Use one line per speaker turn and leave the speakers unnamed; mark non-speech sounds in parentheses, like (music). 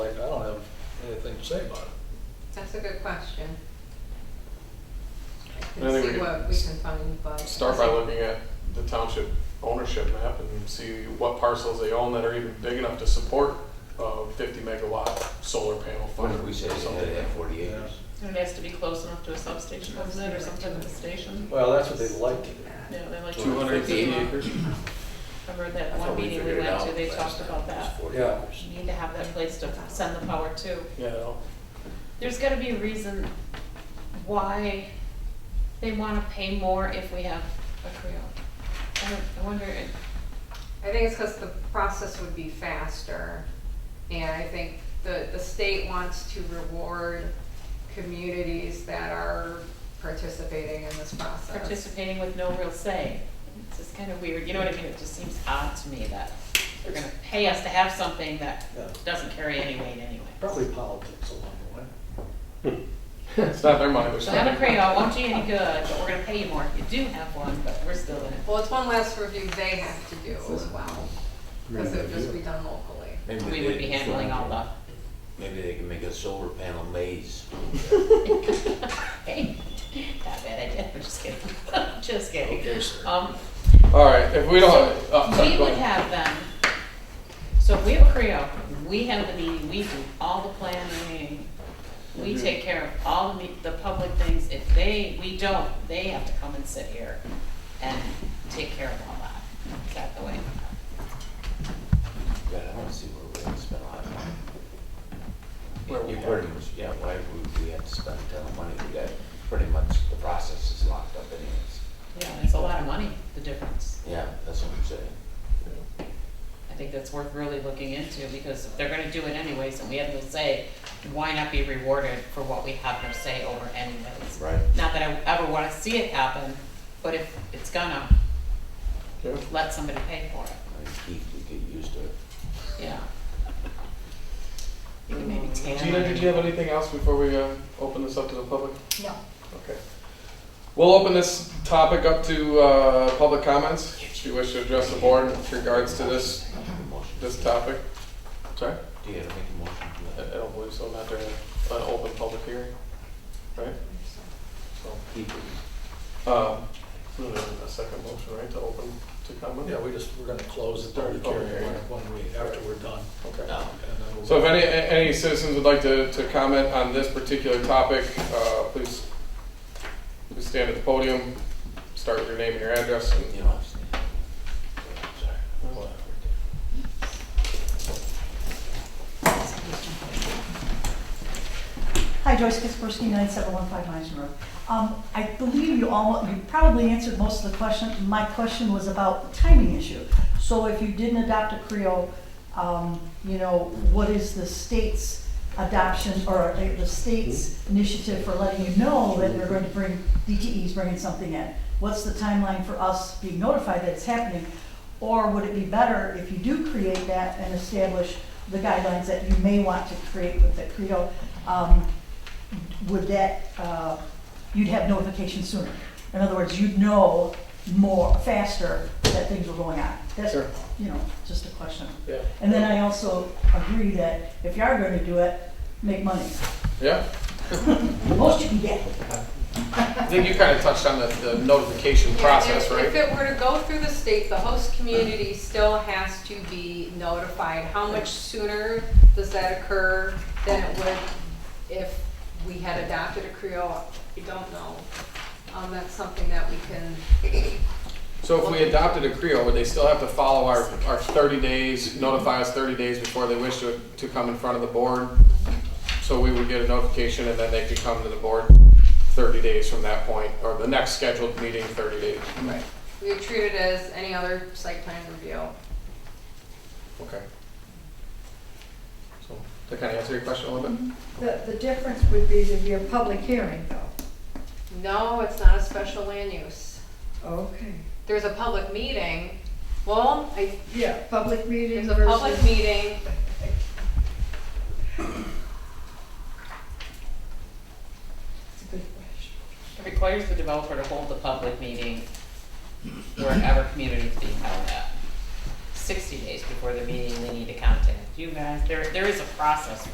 anything to say about it.
That's a good question. I
I
can
think we
see
could
what we can find, but.
Start by looking at the township ownership map and see what parcels they own that are even big enough to support a fifty megawatt solar panel
What
farm
if
or
we said they had to
something.
have forty
Yeah.
acres?
It has to be close enough to a substation, doesn't it, or something at the station?
Well, that's what they like to do.
Yeah, they like.
Two hundred and fifty acres?
I heard that
I thought
one meeting we
figured it
went to,
out
they
last
talked
time. It
about
was
that.
40
Yeah.
acres.
You Need to have that place to send the power to.
Yeah. (laughs)
There's gotta be a reason why they wanna pay more if we have a Creo. I don't, I wonder, if-
I think it's because the process would be faster. And I think the, the state wants to reward communities that are participating in this process.
participating with no real say. It's just kind of weird, you know what I mean? It just seems odd to me that they're gonna pay us to have something that
Yeah.
doesn't carry any weight anyway.
Probably politics along the way.
It's not their money, they're
So have a
spending.
Creo, it won't do you any good, but we're gonna pay you more if you do have one, but we're still in it.
Well, it's one less review they have to do as well, because it would just be done locally.
Maybe
We
they-
would be handling all the,
Maybe they can make a solar panel maze.
hey, (laughs) not bad idea, I'm just kidding, (laughs) just kidding.
Okay, sir.
Um,
All right, if we don't,
so
oh, sorry,
we
go
would
ahead.
have them, so if we have a Creo, we have the meeting, we do all the planning, we take care of all the, me- the public things, if they, we don't, they have to come and sit here and take care of all that, is that the way?
God, I don't see where we're gonna spend a lot of money.
Where we
You
have
pretty much, yeah, why would we have to spend a ton of money? We got, pretty much, the process is locked up anyways.
Yeah, it's a lot of money, the difference.
Yeah, that's what I'm saying.
I think that's worth really looking into, because if they're gonna do it anyways, and we have no say, why not be rewarded for what we have no say over anyways?
Right.
Not that I ever wanna see it happen, but if it's gonna,
Yeah.
let somebody pay for it,
I mean, Keith, we get used to it.
yeah. You can maybe tan.
Gina, did you have anything else before we uh, open this up to the public?
No.
Okay. We'll open this topic up to uh, public comments, if you wish to address the board with regards to this,
Motion.
this topic. Sorry?
Do you have to make a motion for
I I
that?
don't believe so, not during an open public hearing, right? So,
Keith,
um, we don't have a second motion, right, to open to comment?
Yeah, we just, we're gonna close the
During
public hearing
public hearing.
when we, after we're done.
Okay.
no.
and then we'll-
So if any, a- any citizens would like to, to comment on this particular topic, uh, please, please stand at the podium, start with your name and your address, and
You know what I'm saying? I'm sorry. Whatever.
Hi, Joyce Kispersky, 9715 Meisner Road. Um, I believe you all, you probably answered most of the question. My question was about the timing issue. So if you didn't adopt a Creo, um, you know, what is the state's adoption or the the state's initiative for letting you know that they're going to bring, DTE is bringing something in? What's the timeline for us being notified that it's happening? Or would it be better if you do create that and establish the guidelines that you may want to create with the Creo? Um, would that, uh, you'd have notification sooner. In other words, you'd know more, faster that things were going on. That's,
Sure.
you know, just a question.
Yeah.
And then I also agree that if you are going to do it, make money.
Yeah,
The most you can get.
I think you kind of touched on the, the notification
Yeah,
process,
if- If
right? Mm-hmm.
it were to go through the state, the host community still has to be notified. How much sooner does that occur than it would if we had adopted a Creole? I don't know. Um, that's something that we can,
So if we adopted a Creo, would they still have to follow our, our thirty days, notify us thirty days before they wish to, to come in front of the board? So we would get a notification and then they could come to the board thirty days from that point, or the next scheduled meeting thirty days?
right, we would treat it as any other site plan review.
Okay. So, to kind of answer your question a little bit?
The, the difference would be there'd be a public hearing though.
No, it's not a special land use.
Okay.
There's a public meeting. Well, I,
Yeah, public meeting
there's
versus.
a public meeting.
That's a good question.
It requires the developer to hold the public meeting wherever community is being held at. Sixty days before the meeting, they need to contact you guys, there, there is a process